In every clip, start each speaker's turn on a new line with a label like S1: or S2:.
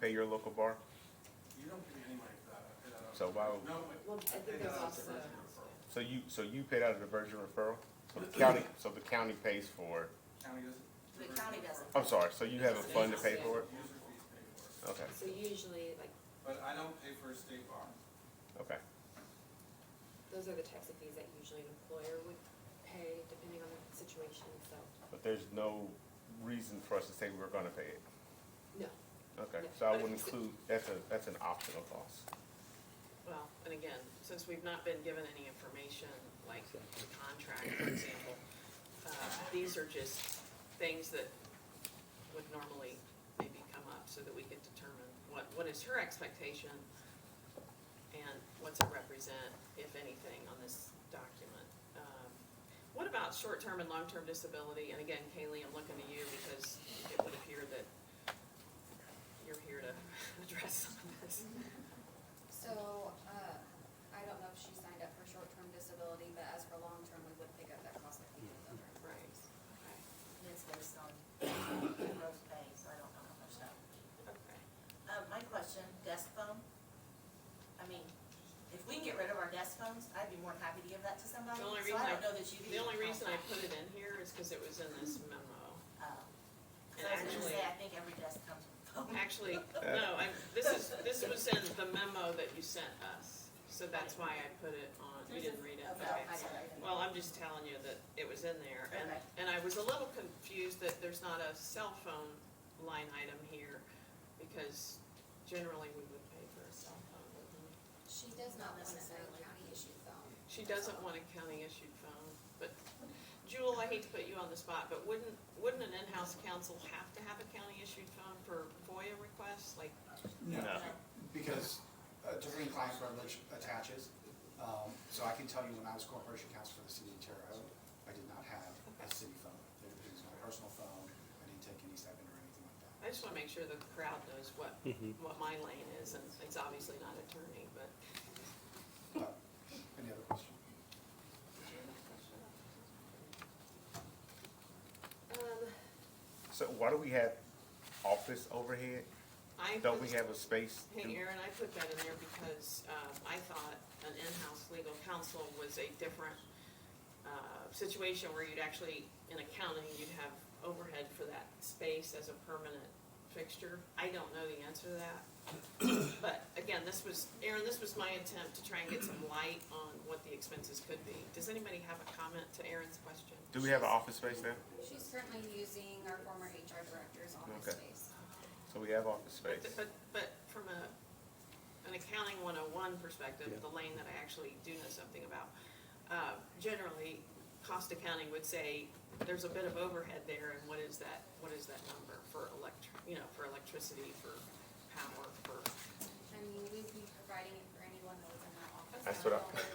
S1: pay your local bar?
S2: You don't give me any money for that. I pay that out.
S1: So why would-
S2: No, but
S3: Well, I
S2: I pay
S3: think
S2: that
S3: there's
S2: out as
S3: also,
S2: diversion referral.
S1: So you, so you paid out a diversion referral? So the county, so the county pays for,
S2: County doesn't.
S4: The
S2: diversion
S4: county
S2: referral.
S4: doesn't.
S1: I'm sorry, so you have a fund to pay for it?
S2: User fees pay for it.
S1: Okay,
S3: so usually, like,
S2: But I don't pay for a state bar.
S1: okay.
S3: those are the types of fees that usually an employer would pay, depending on the situation, so,
S1: But there's no reason for us to say we're gonna pay it.
S3: no.
S1: Okay,
S3: Yeah,
S1: so I
S5: but
S1: would
S5: it's-
S1: include, that's a, that's an optional cost.
S5: Well, and again, since we've not been given any information, like the contract, for example, uh, these are just things that would normally maybe come up so that we could determine what, what is her expectation and what's it represent, if anything, on this document. Um, What about short-term and long-term disability? And again, Kaylee, I'm looking to you because it would appear that you're here to address some of this.
S6: So, uh, I don't know if she signed up for short-term disability, but as for long-term, we would pick up that cost like we did with other
S5: Right,
S6: employees.
S5: okay.
S4: It's based on gross pay, so I don't know how much that would be.
S5: Okay,
S4: Uh, my question, desk phone? I mean, if we can get rid of our desk phones, I'd be more than happy to give that to somebody,
S5: The only
S4: so
S5: reason
S4: I
S5: I-
S4: don't know that you could.
S5: the only
S4: even
S5: reason I
S4: contact.
S5: put it in here is because it was in this memo.
S4: Oh. 'Cause
S5: And
S4: I was gonna
S5: actually,
S4: say, I think every desk comes with a phone.
S5: actually, Oh, no, I, this is, this was in the memo that you sent us, so that's why I put it on, you didn't read it,
S4: Oh, no,
S5: okay.
S4: I got it.
S5: Well, I'm just telling you that it was in there, and,
S4: Okay.
S5: and I was a little confused that there's not a cell phone line item here, because generally we would pay for a cell phone. wouldn't we?
S6: She does not
S4: Not
S6: want a
S4: necessarily.
S6: county issued phone.
S5: She doesn't want a county-issued phone, but Jewel, I hate to put you on the spot, but wouldn't, wouldn't an in-house counsel have to have a county-issued phone for FOIA requests? Like,
S7: No,
S1: No.
S7: because uh, attorney client privilege attaches. Um, So I can tell you when I was corporation counsel for the city of Terre Haute, I did not have a city phone. There was no personal phone. I didn't take any stipend or anything like that.
S5: I just wanna make sure the crowd knows what, what my lane is, and it's obviously not attorney, but.
S7: But, any other question?
S5: Um,
S1: So why do we have office overhead?
S5: I.
S1: Don't we have a space? to-
S5: Hey, Aaron, I put that in there because um, I thought an in-house legal counsel was a different uh, situation where you'd actually, in accounting, you'd have overhead for that space as a permanent fixture. I don't know the answer to that. But again, this was, Aaron, this was my attempt to try and get some light on what the expenses could be. Does anybody have a comment to Aaron's question?
S1: Do we have an office space now?
S6: She's currently using our former HR director's office
S1: Okay.
S6: space.
S1: So we have office
S5: But,
S1: space.
S5: but, but from a, an accounting one oh one perspective, the lane that I actually do know something about, uh, generally, cost accounting would say, there's a bit of overhead there, and what is that, what is that number for electric, you know, for electricity, for power, for,
S6: I mean, we'd be providing it for anyone that was in that office.
S1: That's what I-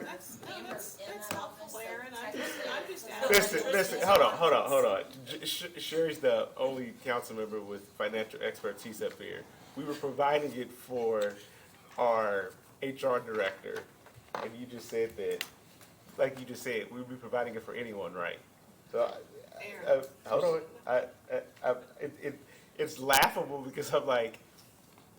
S5: that's, no,
S4: Amber's
S5: that's,
S4: in
S5: that's
S4: that office,
S5: helpful,
S4: so
S5: Aaron, I'm just, I'm just
S4: technically-
S1: Listen,
S5: asking.
S1: listen, hold on, hold on, hold on. Sh- Sh- Sherry's the only council member with financial expertise up here. We were providing it for our HR director, and you just said that, like you just said, we would be providing it for anyone, right? So, I- I-
S5: Aaron.
S1: I- Uh, hold on, I, I, I, it, it, it's laughable because I'm like,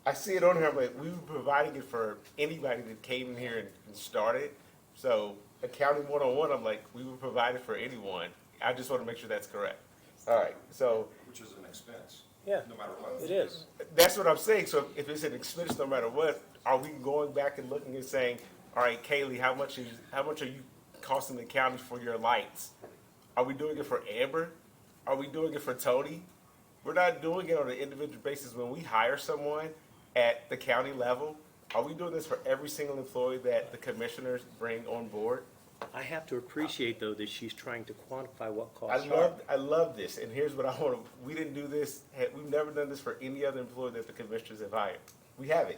S1: I see it on here, I'm like, we were providing it for anybody that came in here and, and started. So accounting one on one, I'm like, we were provided for anyone. I just want to make sure that's correct. All right, so
S8: Which is an expense.
S9: Yeah.
S8: No matter what.
S9: It is.
S1: that's what I'm saying. So if it's an expense, no matter what, are we going back and looking and saying, all right, Kaylee, how much is, how much are you costing the county for your lights? Are we doing it for Amber? Are we doing it for Tony? We're not doing it on an individual basis when we hire someone at the county level. Are we doing this for every single employee that the commissioners bring on board?
S9: I have to appreciate, though, that she's trying to quantify what
S1: I
S9: costs are.
S1: love, I love this, and here's what I want to, we didn't do this, we've never done this for any other employee that the commissioners have hired. We haven't.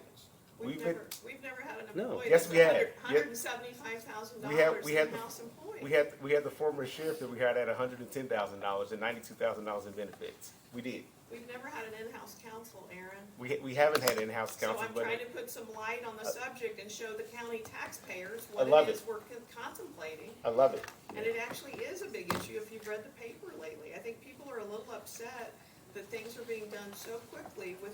S5: We've
S1: been-
S5: never, we've never had an
S9: No.
S5: employee
S1: Yes,
S5: that's
S1: we have.
S5: hundred,
S1: Yep.
S5: hundred and seventy-five thousand
S1: We have-
S5: dollars
S1: we had the-
S5: in-house employee.
S1: We had, we had the former sheriff that we hired at hundred and ten thousand dollars and ninety-two thousand dollars in benefits. We did.
S5: We've never had an in-house counsel, Aaron.
S1: We, ha- we haven't had in-house
S5: So
S1: counsel,
S5: I'm
S1: but
S5: trying to put some light on the subject and show the county taxpayers
S1: Uh, I love
S5: what it
S1: it.
S5: is we're con- contemplating.
S1: I love it.
S5: And it actually is a big issue if you've read the paper lately. I think people are a little upset that things are being done so quickly with